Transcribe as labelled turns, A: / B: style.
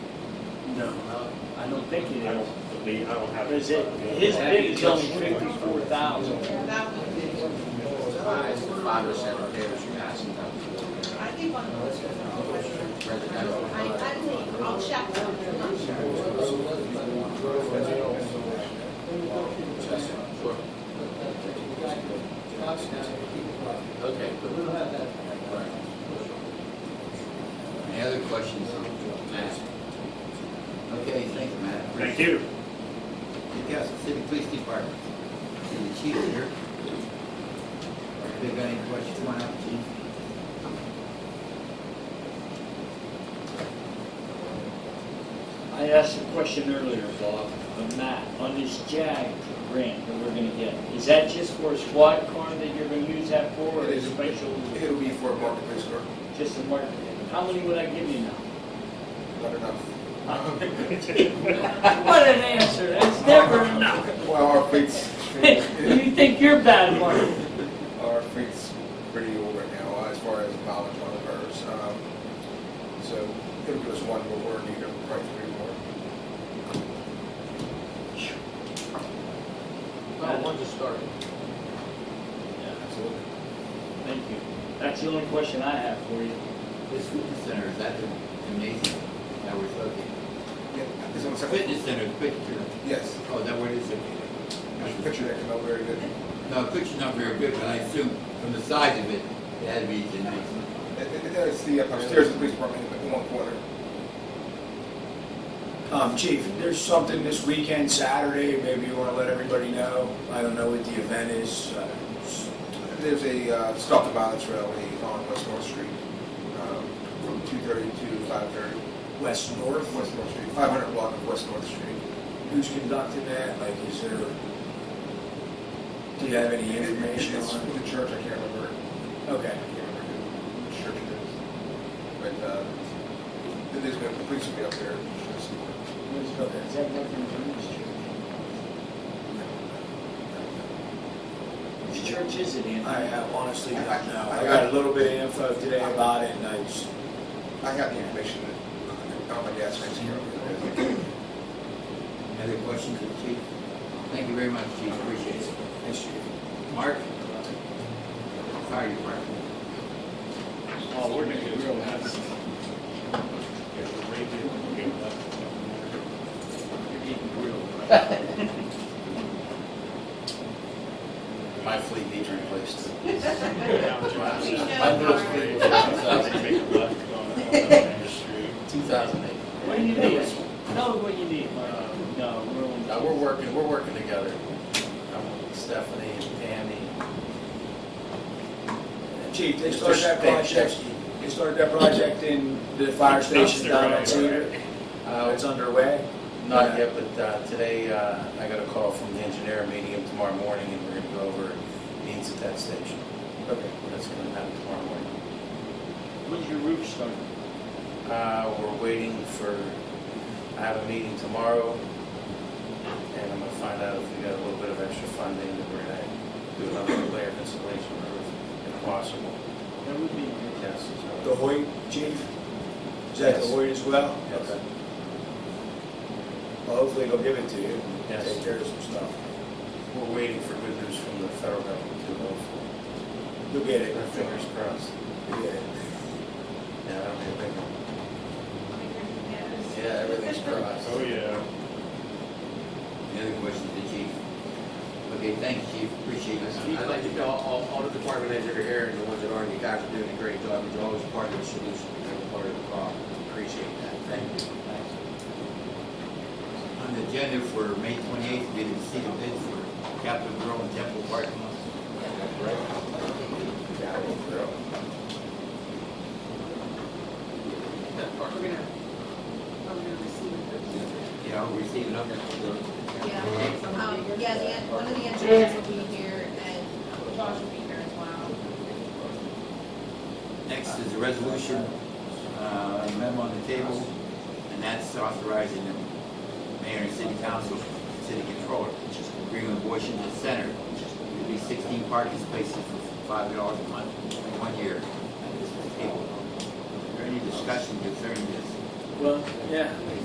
A: No, no, I don't think it
B: I
A: is.
B: don't believe, I don't have.
A: Because it, his bid is only fifty-four thousand.
C: It's five or seven pairs you asked them
D: I think on those.
C: for, residential.
D: I, I think, I'll check. I'm not sure.
C: Sure. Okay. good. Right. Any other questions on Matt? Okay, thank you, Matt.
B: Thank you.
C: The Council City Police Department, and the chief here. If they've got any questions, why not, chief?
A: I asked a question earlier, Bob, of Matt, on this JAG grant that we're gonna get. Is that just for a squad car that you're gonna use that for, or
E: It
A: is
E: is.
A: it special,
E: It'll be for a marketplace store,
A: just a market? How many would I give you now?
E: not enough.
A: What an answer, that's never enough.
E: Well, our fleet's,
A: You think you're bad, Mark?
E: our fleet's pretty old right now uh, as far as mileage on the cars. Um, So it'll give us one more, or need probably three more.
A: Well,
C: one to start.
E: Absolutely.
A: Thank you. That's the only question I have for you.
C: This fitness center, is that the gymnasium that we're looking?
E: Yeah, it's on the second.
C: Fitness center, picture.
E: Yes,
C: Oh, is that where it is located?
E: there's a picture that came out very good.
C: No, the picture's not very good, but I assume from the size of it, it had to be gymnasium.
E: It- it- It's uh, the upstairs of the police department in one corner.
F: Um, Chief, there's something this weekend, Saturday, maybe you want to let everybody know. I don't know what the event is. uh, s-
E: There's a uh, stop the violence rally on West North Street um, from 2:30 to 5:30.
F: West North,
E: West North Street, 500 block of West North Street.
F: who's conducting that? Like, is there, do you have any information
E: It's
F: on?
E: from the church, I can't remember,
F: Okay,
E: I can't remember who the church it is. But, uh, there's been, the police will be up there. just-
A: Is that nothing from this church? Which church is it in?
F: I have honestly don't know. I got a little bit of info today about it, and I just,
E: I have the information, on my gas tank here.
C: Other questions, of the Chief? Thank you very much, Chief, appreciate it.
F: thanks, Chief.
C: Mark? Fire department.
A: Oh, we're gonna get real happy.
C: My fleet needs replaced.
D: My middle fleet
C: Two thousand eight.
A: What do you need? Tell them what you need, Mark. No, we're only.
G: Now, Uh, we're working, we're working together. Um, Stephanie and Tammy.
F: Chief, they
G: Mr.
F: started that project,
G: Stanchevsky.
F: they started that project in the fire station down at Cedar. Uh,
G: Uh,
F: It's underway.
G: Not yet, but uh, today uh, I got a call from the engineer, meeting him tomorrow morning, and we're gonna go over needs at that station.
F: Okay.
G: That's gonna happen tomorrow morning.
A: When's your roof starting?
G: Uh, We're waiting for, I have a meeting tomorrow, and I'm gonna find out if we got a little bit of extra funding, that we're gonna do another layer of insulation roof, if possible.
A: That would be.
G: Yes, so-
F: The Hoyt, Chief? Is that the
G: Yes.
F: Hoyt as well?
G: Yes.
F: Okay. Well, hopefully they'll give it to you.
G: Yes.
F: Take care of some stuff.
G: We're waiting for good news from the federal government to go
F: You'll get it.
G: Our fingers crossed.
F: You'll get it.
G: Yeah, that'll be a big one. Yeah, everything's crossed.
B: Oh, yeah.
C: Any other questions, the chief? Okay, thanks, chief, appreciate it.
A: Chief.
C: Chief,
H: I'd like to tell all, all the department heads that are here and the ones that aren't, you guys are doing a great job. You're always part of the solution, you're part of the problem. Appreciate that. Thank you.
C: On the agenda for May twenty-eighth, did you see the bid for Capitol Grill and Temple parking lot?
H: That part.
C: Yeah, I'll receive it up there.
D: Yeah, um, yeah, the, en- one of the engineers will be here and Josh will be here as well.
C: Next is a resolution, uh, a memo on the table, and that's authorizing the mayor and city council, city controller, agreement with Washington Center, to be sixteen parking spaces for five dollars a month in one year. And this is tabled. Is there any discussion concerning this?
A: Well, yeah.